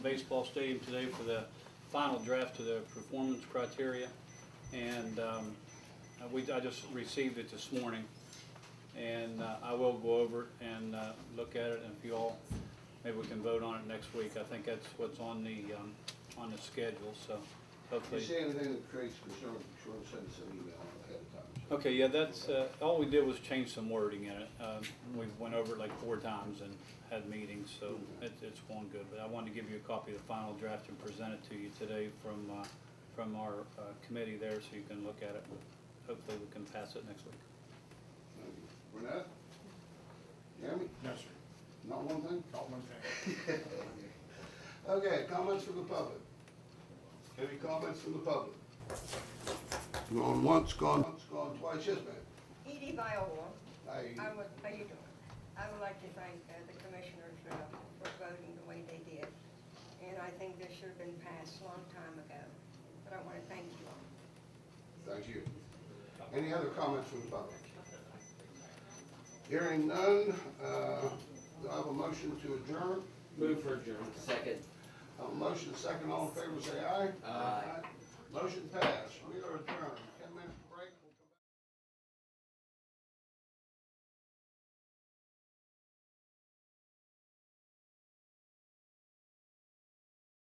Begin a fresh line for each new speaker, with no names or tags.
baseball stadium today for the final draft to the performance criteria. And um, uh, we, I just received it this morning. And uh, I will go over it and uh, look at it, and if you all, maybe we can vote on it next week. I think that's what's on the, um, on the schedule, so
If you
hopefully.
see anything that creates concern, be sure and send us an email ahead of time. so-
Okay, yeah, that's, uh, all we did was change some wording in it. Um, We went over it like four times and had meetings, so it- it's going good. But I wanted to give you a copy of the final draft and present it to you today from, uh, from our uh, committee there, so you can look at it. Hopefully, we can pass it next week.
Thank you. Renetta? Jeremy?
No, sir.
Not one thing?
Not one thing.
Okay, comments from the public? Any comments from the public? Gone once, gone, once, gone twice, yes, ma'am.
Edie Viola,
I-
I would, how you doing? I would like to thank uh, the commissioners uh, for voting the way they did. And I think this should have been passed a long time ago, but I want to thank you all.
Thank you. Any other comments from the public? Hearing none, uh, do I have a motion to adjourn?
Move for adjournment. Second.
Have a motion, second, all in favor, say aye.
Aye.
Motion passed, we are adjourned.